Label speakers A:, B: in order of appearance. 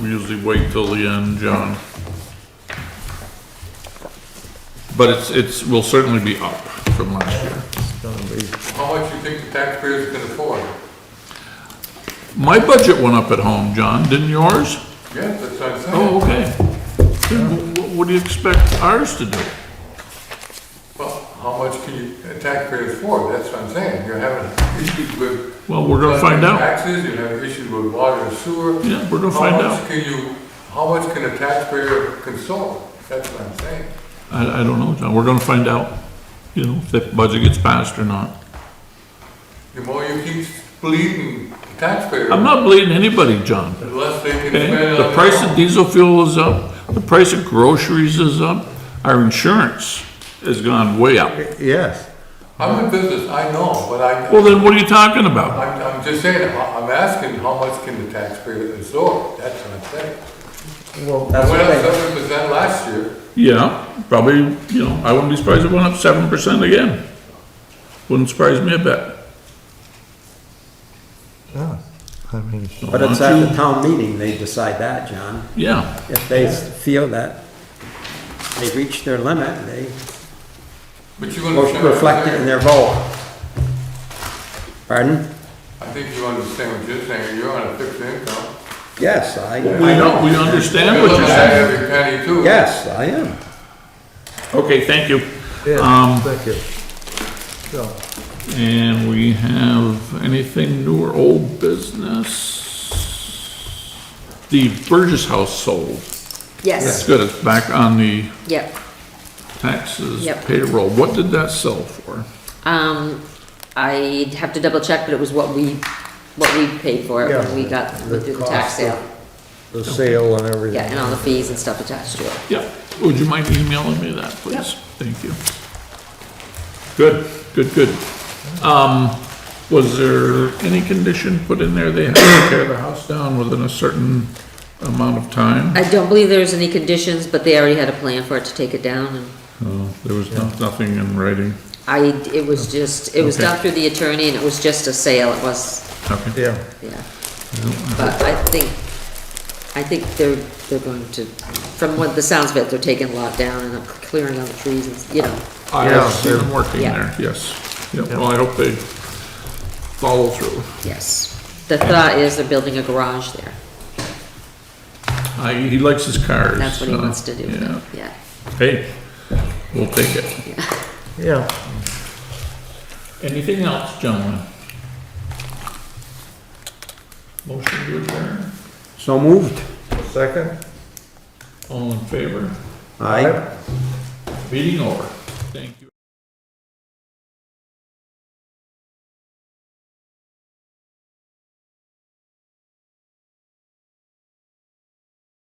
A: usually wait till the end, John. But it's, it's, will certainly be up from last year.
B: How much you think the taxpayers can afford?
A: My budget went up at home, John, didn't yours?
B: Yeah, that's what I'm saying.
A: Oh, okay. Then wh- wh- What do you expect ours to do?
B: Well, how much can you, a taxpayer afford? That's what I'm saying. You're having issues with.
A: Well, we're gonna find out.
B: Taxes, you have issues with water and sewer.
A: Yeah, we're gonna find
B: How
A: out.
B: much can you, how much can a taxpayer console? That's what I'm saying.
A: I, I don't know, John, we're gonna find out, you know, if that budget gets passed or not.
B: The more you keep bleeding the taxpayer.
A: I'm not blaming anybody, John.
B: Unless they can
A: Okay,
B: spend it on.
A: the
B: their
A: price of
B: own.
A: diesel fuel is up, the price of groceries is up, our insurance has gone way up.
C: Yes.
B: I'm in business, I know, but I,
A: Well, then what are you talking about?
B: I'm, I'm just saying, I- I'm asking how much can the taxpayer absorb? That's what I'm saying.
C: Well,
B: It
C: that's
B: Went up
C: what
B: seven percent last year.
A: Yeah, probably, you know, I wouldn't be surprised if it went up seven percent again. Wouldn't surprise me a bit.
C: Oh, I, I mean.
A: So
D: But
A: why
D: it's
A: don't
D: at
A: you-
D: the town meeting, they decide that, John.
A: Yeah,
D: If they feel that they've reached their limit, they
B: But you understand. what I'm
D: reflect it in
B: saying.
D: their vote. Pardon?
B: I think you understand what you're saying, you're on a fixed income.
D: Yes, I,
A: we,
D: I
A: know-
D: know.
A: we understand
B: You're
A: what
B: looking
A: you're
B: at
A: saying.
B: Every penny too.
D: Yes, I am.
A: Okay, thank you.
C: Yeah,
A: Um,
C: thank you. So,
A: And we have anything new or old business? The Burgess House sold. That's
E: Yes,
A: good, it's back on the
E: yep.
A: taxes
E: Yep.
A: payroll, what did that sell for?
E: Um, I'd have to double check, but it was what we, what we paid for it when we
C: Yeah,
E: got,
C: the
E: through the
C: cost
E: tax
C: of-
E: sale.
C: the sale and
E: Yeah,
C: everything.
E: and all the fees and stuff attached to it.
A: Yeah, would you mind emailing me that, please? Thank you. Good, good, good. Um, was there any condition put in there, they had to tear the house down within a certain amount of time?
E: I don't believe there's any conditions, but they already had a plan for it to take it down and
A: No, there was no- nothing in writing,
E: I, it was
C: Oh.
E: just, it was
A: Okay.
E: done through the attorney and it was just a sale, it was,
A: okay.
C: Yeah,
E: yeah. But I think, I think they're, they're going to, from what the sounds of it, they're taking a lot down and clearing all the trees and, you know,
A: I
C: Yeah.
A: see them working
E: Yeah.
A: there, yes. Yeah, well, I hope they follow through.
E: yes. The thought is they're building a garage there.
A: I, he likes his cars.
E: That's what he
A: so,
E: wants to do, with
A: Yeah,
E: it, yeah.
A: hey, we'll take it.
C: yeah.
A: Anything else, gentlemen? Motion to adjourn,
D: So moved.
C: Second?
A: all in favor?
D: Aye.
A: Meeting over. Thank you.